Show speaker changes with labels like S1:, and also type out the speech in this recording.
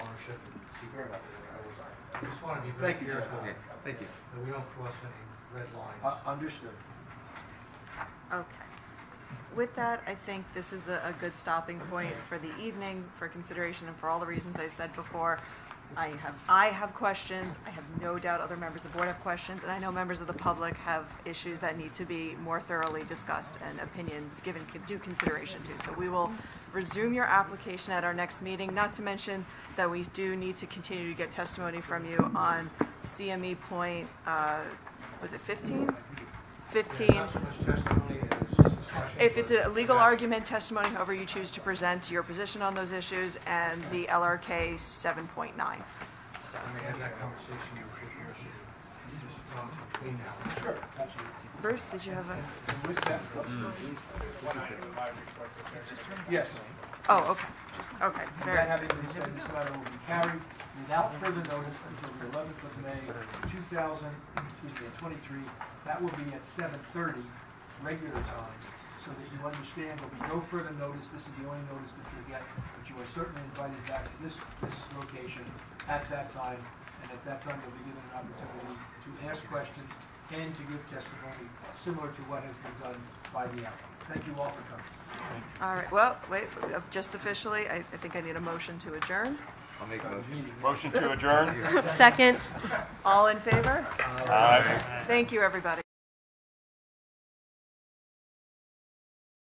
S1: very much. I
S2: I just want to be very
S1: Thank you, Jeff.
S2: careful
S3: Okay, thank you.
S2: that we don't cross any red
S1: was-
S2: lines.
S1: Uh, Understood.
S4: Okay. With that, I think this is a, a good stopping point for the evening, for consideration and for all the reasons I said before. I have, I have questions, I have no doubt other members of the board have questions, and I know members of the public have issues that need to be more thoroughly discussed and opinions given con- due consideration to. So we will resume your application at our next meeting, not to mention that we do need to continue to get testimony from you on CME point, uh, was it fifteen? Fifteen.
S2: Not so much testimony as discussion.
S4: If it's a
S2: but-
S4: legal
S2: Yeah.
S4: argument, testimony, however you choose to present your position on those issues, and the LRK 7.9. So,
S2: I may have that conversation with Commissioner Thompson um, clean out.
S1: Sure, absolutely.
S4: Bruce, did you have a,
S1: With that, yes.
S4: oh, okay, okay,
S1: That
S4: very,
S1: having been said, this matter will be carried without further notice until the eleventh of May, two thousand, excuse me, twenty-three. That will be at seven thirty, regular time, so that you understand there'll be no further notice. This is the only notice that you'll get, but you are certainly invited back to this, this location at that time. And at that time, you'll be given an opportunity to ask questions and to give testimony similar to what has been done by the applicant. Thank you all for coming.
S4: all right, well, wait, uh, just officially, I, I think I need a motion to adjourn.
S3: I'll make a motion.
S5: Motion to adjourn?
S6: Second.
S4: All in favor?
S5: Aye.
S4: Thank you, everybody.